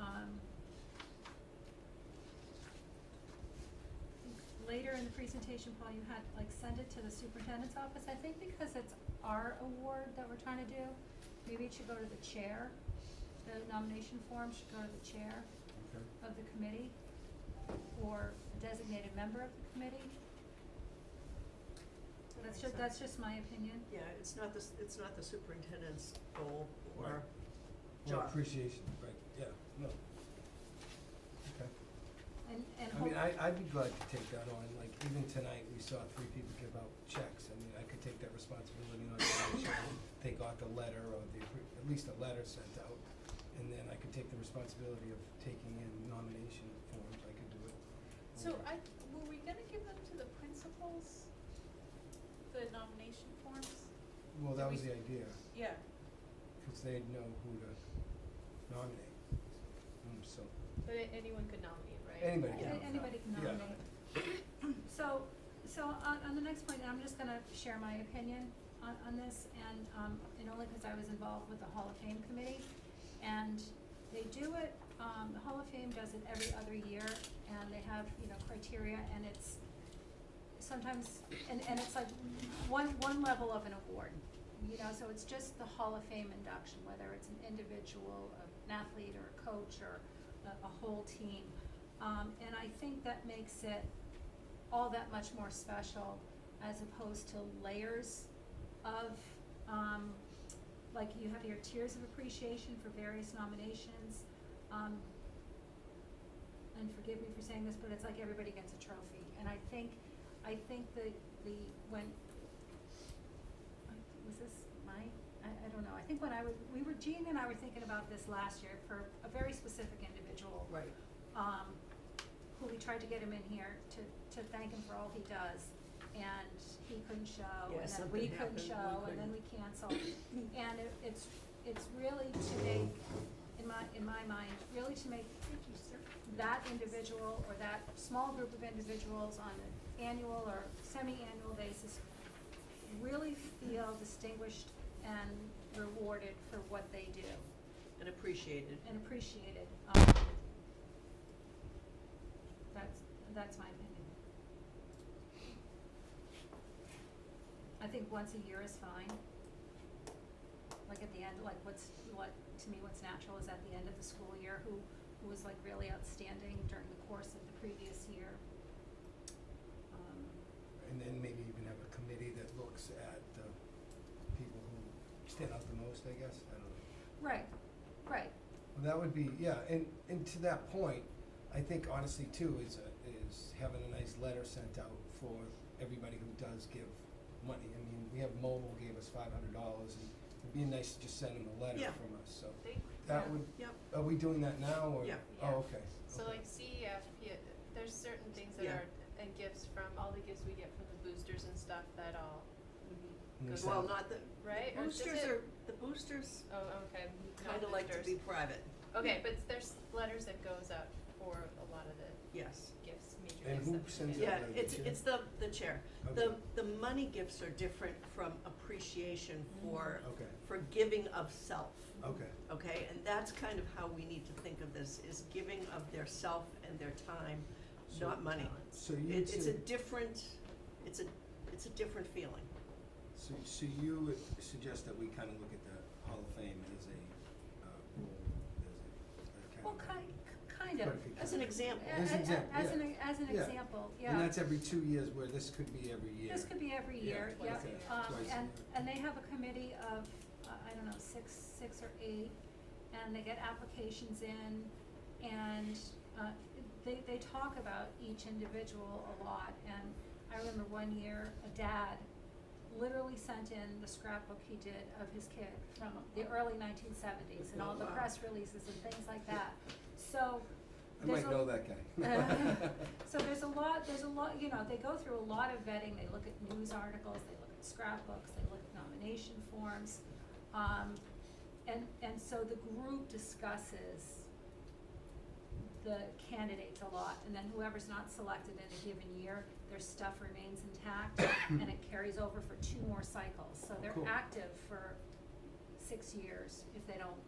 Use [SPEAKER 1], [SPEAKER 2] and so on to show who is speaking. [SPEAKER 1] Um, during the presentation, Paul, you had like send it to the superintendent's office, I think because it's our award that we're trying to do, maybe it should go to the chair. The nomination form should go to the chair
[SPEAKER 2] Okay.
[SPEAKER 1] of the committee or a designated member of the committee.
[SPEAKER 3] That
[SPEAKER 1] That's
[SPEAKER 3] makes
[SPEAKER 1] just,
[SPEAKER 3] sense.
[SPEAKER 1] that's just my opinion.
[SPEAKER 3] Yeah, it's not the, s- it's not the superintendent's goal or
[SPEAKER 2] Right. Well,
[SPEAKER 3] job.
[SPEAKER 2] appreciation, right, yeah, no. Okay.
[SPEAKER 1] And, and
[SPEAKER 2] I mean,
[SPEAKER 1] hope,
[SPEAKER 2] I, I'd be glad to take that on, like, even tonight, we saw three people give out checks, I mean, I could take that responsibility on, my shoulder. they got the letter or the, appro- at least a letter sent out, and then I could take the responsibility of taking in nomination forms, I could do it.
[SPEAKER 4] So
[SPEAKER 2] over.
[SPEAKER 4] I, were we gonna give them to the principals, the nomination forms?
[SPEAKER 2] Well, that
[SPEAKER 4] we-
[SPEAKER 2] was the idea,
[SPEAKER 4] Yeah,
[SPEAKER 2] cause they'd know who to nominate, Mm, so,
[SPEAKER 5] But a- anyone could nominate, right?
[SPEAKER 2] anybody
[SPEAKER 1] a-
[SPEAKER 2] can.
[SPEAKER 3] Yeah.
[SPEAKER 1] anybody can
[SPEAKER 2] Yeah.
[SPEAKER 1] nominate. So, so on, on the next point, I'm just gonna share my opinion on, on this, and, um, and only because I was involved with the Hall of Fame committee. And they do it, um, the Hall of Fame does it every other year, and they have, you know, criteria, and it's sometimes, and, and it's like one, one level of an award. You know, so it's just the Hall of Fame induction, whether it's an individual, an athlete, or a coach, or a, a whole team. Um, and I think that makes it all that much more special as opposed to layers of, um, like you have your tiers of appreciation for various nominations. Um, and forgive me for saying this, but it's like everybody gets a trophy. And I think, I think the, the, when, I- was this my, I, I don't know. I think when I was, we were, Jean and I were thinking about this last year for a very specific individual
[SPEAKER 3] Right.
[SPEAKER 1] um, who we tried to get him in here to, to thank him for all he does. And he couldn't show,
[SPEAKER 3] Yeah,
[SPEAKER 1] and then
[SPEAKER 3] something
[SPEAKER 1] we couldn't
[SPEAKER 3] happened, we
[SPEAKER 1] show, and then we
[SPEAKER 3] couldn't.
[SPEAKER 1] canceled. And it, it's, it's really to make, in my, in my mind, really to make that individual or that small group of individuals on an annual or semi-annual basis really feel distinguished and rewarded for what they do
[SPEAKER 3] And appreciated.
[SPEAKER 1] and appreciated. Um, that's, that's my opinion. I think once a year is fine. Like at the end, like what's, what, to me, what's natural is at the end of the school year, who, who was like really outstanding during the course of the previous year. Um,
[SPEAKER 2] And then maybe even have a committee that looks at the people who stand out the most, I guess, I don't know.
[SPEAKER 1] Right, right,
[SPEAKER 2] Well, That would be, yeah, and, and to that point, I think honestly too, is, a- is having a nice letter sent out for everybody who does give money. I mean, we have Mobile gave us five hundred dollars, and it'd be nice to just send them a letter
[SPEAKER 3] Yeah.
[SPEAKER 2] from us, so.
[SPEAKER 4] they,
[SPEAKER 2] That
[SPEAKER 1] Yeah.
[SPEAKER 2] would,
[SPEAKER 3] Yep,
[SPEAKER 2] are we doing that now, or?
[SPEAKER 3] Yeah.
[SPEAKER 5] Yeah.
[SPEAKER 2] Oh, okay.
[SPEAKER 5] So
[SPEAKER 2] okay.
[SPEAKER 5] like CEF, yeah, there's certain things that
[SPEAKER 3] Yeah.
[SPEAKER 5] are, and gifts from, all the gifts we get from the boosters and stuff that all,
[SPEAKER 2] And we
[SPEAKER 5] goes
[SPEAKER 2] send-
[SPEAKER 3] well, not the,
[SPEAKER 5] right? Or does
[SPEAKER 3] boosters
[SPEAKER 5] it-
[SPEAKER 3] are, the boosters
[SPEAKER 5] Oh, okay, not
[SPEAKER 3] kinda like to
[SPEAKER 5] boosters.
[SPEAKER 3] be private,
[SPEAKER 5] Okay, but there's letters that goes out for a lot of the
[SPEAKER 3] yes.
[SPEAKER 5] gifts, major
[SPEAKER 2] And
[SPEAKER 5] gifts
[SPEAKER 2] who
[SPEAKER 5] that we
[SPEAKER 2] sends
[SPEAKER 5] get.
[SPEAKER 2] out
[SPEAKER 3] Yeah,
[SPEAKER 2] like the
[SPEAKER 3] it's,
[SPEAKER 2] chair?
[SPEAKER 3] it's the, the chair. The,
[SPEAKER 2] Okay.
[SPEAKER 3] the money gifts are different from appreciation for,
[SPEAKER 2] Mm-hmm. Okay,
[SPEAKER 3] for giving of self,
[SPEAKER 2] okay,
[SPEAKER 3] okay? And that's kind of how we need to think of this, is giving of their self and their time,
[SPEAKER 2] So-
[SPEAKER 3] not money.
[SPEAKER 2] so you
[SPEAKER 3] It, it's a
[SPEAKER 2] two,
[SPEAKER 3] different, it's a, it's a different feeling.
[SPEAKER 2] so, so you would suggest that we kinda look at the Hall of Fame as a, uh, role, as a, a kind
[SPEAKER 1] well,
[SPEAKER 2] of.
[SPEAKER 1] ki- kind of.
[SPEAKER 2] Quite a few
[SPEAKER 3] As an
[SPEAKER 2] times.
[SPEAKER 3] example,
[SPEAKER 1] A-
[SPEAKER 2] As an
[SPEAKER 1] a- a-
[SPEAKER 2] example,
[SPEAKER 1] As
[SPEAKER 2] yeah.
[SPEAKER 1] an, as an
[SPEAKER 2] Yeah.
[SPEAKER 1] example, yeah.
[SPEAKER 2] And that's every two years, where this could be every year.
[SPEAKER 1] This could be every
[SPEAKER 2] Yeah,
[SPEAKER 1] year, yeah,
[SPEAKER 5] twice a year.
[SPEAKER 1] um,
[SPEAKER 2] Twice a
[SPEAKER 1] and,
[SPEAKER 2] year.
[SPEAKER 1] and they have a committee of, uh, I don't know, six, six or eight, and they get applications in, and, uh, they, they talk about each individual a lot, and I remember one year, a dad literally sent in the scrapbook he did of his kid from the early nineteen seventies,
[SPEAKER 2] Oh,
[SPEAKER 1] and all the
[SPEAKER 3] Wow.
[SPEAKER 1] press releases and things like that, so,
[SPEAKER 2] I
[SPEAKER 1] there's
[SPEAKER 2] might
[SPEAKER 1] a-
[SPEAKER 2] know that guy.
[SPEAKER 1] so there's a lot, there's a lot, you know, they go through a lot of vetting, they look at news articles, they look at scrapbooks, they look at nomination forms. Um, and, and so the group discusses the candidates a lot, and then whoever's not selected in a given year, their stuff remains intact, and it carries over for two more cycles, so they're
[SPEAKER 2] Cool.
[SPEAKER 1] active for six years if they don't